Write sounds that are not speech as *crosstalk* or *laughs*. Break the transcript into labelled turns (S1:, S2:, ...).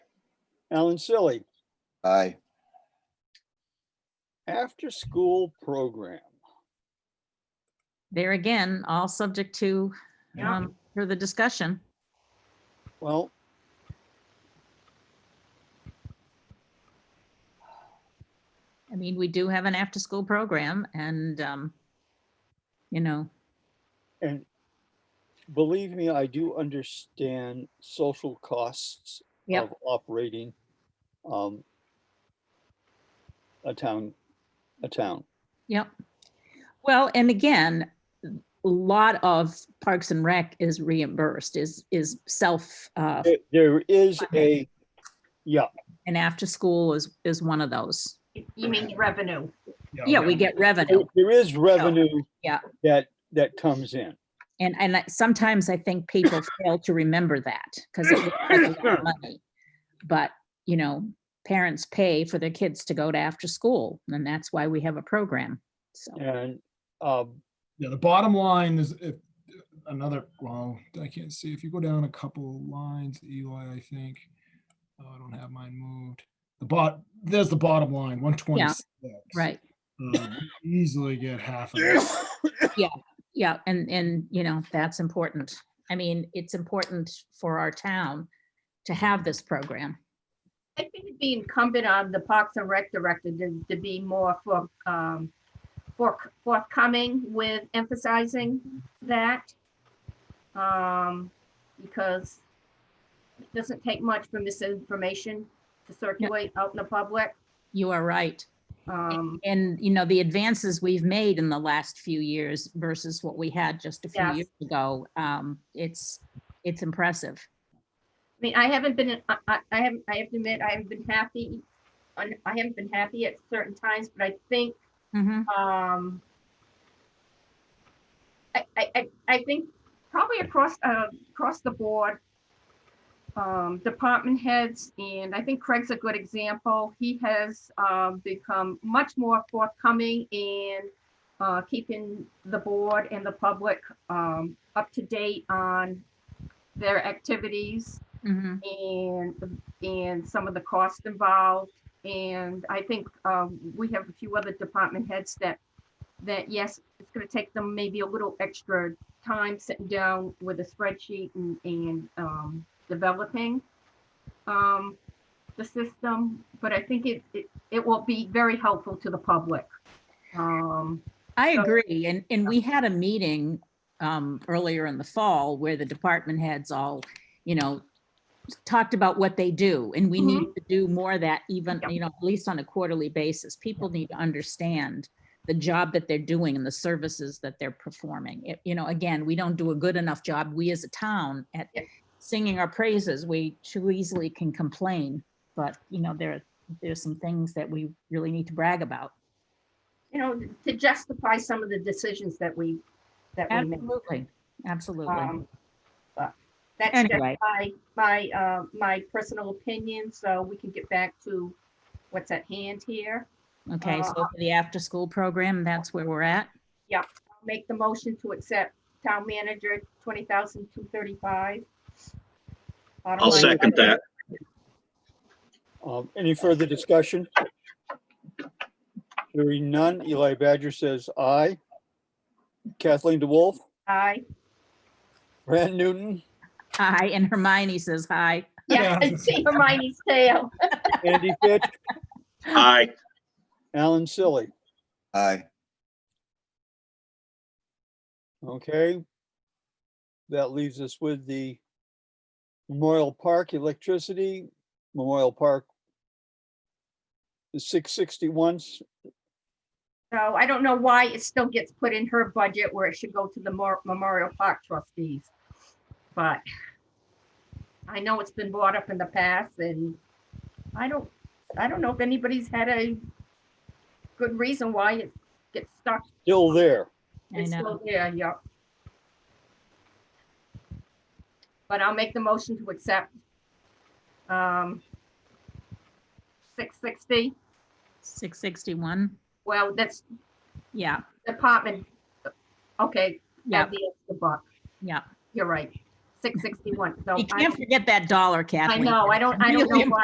S1: Alan Silly,
S2: Aye.
S1: after-school program.
S3: There again, all subject to,
S4: Yeah.
S3: um, for the discussion.
S1: Well.
S3: I mean, we do have an after-school program and, um, you know,
S1: And believe me, I do understand social costs
S3: Yep.
S1: of operating um, a town, a town.
S3: Yep. Well, and again, a lot of Parks and Rec is reimbursed, is, is self, uh,
S1: There- There is a, yeah,
S3: and after school is, is one of those.
S4: You mean the revenue?
S3: Yeah, we get revenue.
S1: there is revenue.
S3: yeah.
S1: That, that comes in.
S3: And, and I- sometimes I think people fail to remember that because it requires a lot of money. But, you know, parents pay for their kids to go to after school and that's why we have a program. So,
S1: And um,
S5: Yeah, the bottom line is if another, well, I can't see. If you go down a couple lines, Eli, I think. Oh, I don't have mine moved. The bot, there's the bottom line, one twenty-six.
S3: right.
S5: Um, Easily
S1: *laughs*
S5: get half of it.
S3: Yeah, and, and, you know, that's important. I mean, it's important for our town to have this program.
S4: I think it'd be incumbent on the Parks and Rec Director to, to be more for, um, for, forthcoming with emphasizing that. Um, because it doesn't take much for misinformation to circulate out in the public.
S3: You are right.
S4: Um,
S3: And, you know, the advances we've made in the last few years versus what we had just a few
S4: Yes.
S3: years ago, um, it's, it's impressive.
S4: I mean, I haven't been, I, I- I haven't, I have to admit, I haven't been happy. on- I haven't been happy at certain times, but I think
S3: Mhm.
S4: um, I, I, I- I think probably across, uh, across the board, um, department heads, and I think Craig's a good example. He has, um, become much more forthcoming in, uh, keeping the board and the public, um, up to date on their activities
S3: Mhm.
S4: and, and some of the cost involved. And I think um, we have a few other department heads that, that yes, it's gonna take them maybe a little extra time sitting down with a spreadsheet and, and um, developing um, the system, but I think it, it, it will be very helpful to the public. Um,
S3: I
S4: So-
S3: agree. And, and we had a meeting, um, earlier in the fall where the department heads all, you know, talked about what they do and we
S4: Mhm.
S3: need to do more of that even,
S4: Yep.
S3: you know, at least on a quarterly basis. People need to understand the job that they're doing and the services that they're performing. It- You know, again, we don't do a good enough job, we as a town, at
S4: Yep.
S3: singing our praises. We too easily can complain. But, you know, there, there's some things that we really need to brag about.
S4: You know, to justify some of the decisions that we, that we make.
S3: Absolutely, absolutely.
S4: Um, but That's just
S3: Anyway,
S4: my, my, uh, my personal opinion, so we can get back to what's at hand here.
S3: okay, so
S4: uh,
S3: for the after-school program, that's where we're at.
S4: Make the motion to accept town manager twenty thousand two thirty-five.
S6: I'll second that.
S1: um, any further discussion? Hearing none, Eli Badger says aye. Kathleen DeWolf,
S4: Aye.
S1: Brad Newton,
S3: Hi, and Hermione says hi.
S4: Yeah, I *laughs* see Hermione's tail.
S1: Andy Fitch,
S6: Aye.
S1: Alan Silly.
S2: Aye.
S1: Okay. That leaves us with the Memorial Park electricity, Memorial Park. The six sixty ones,
S4: So I don't know why it still gets put in her budget where it should go to the Mor- Memorial Park trustees. But I know it's been brought up in the past and I don't, I don't know if anybody's had a good reason why it gets stuck.
S1: still there.
S3: I
S4: It's
S3: know.
S4: still there, yeah. But I'll make the motion to accept. um, 660,
S3: 661,
S4: well, that's
S3: yeah,
S4: department. Okay,
S3: yeah,
S4: at the end of the buck.
S3: yeah.
S4: You're right. Six sixty-one. So
S3: You
S4: I-
S3: can't forget that dollar,
S4: I
S3: Kathleen.
S4: know, I don't, I don't know
S3: Really
S4: why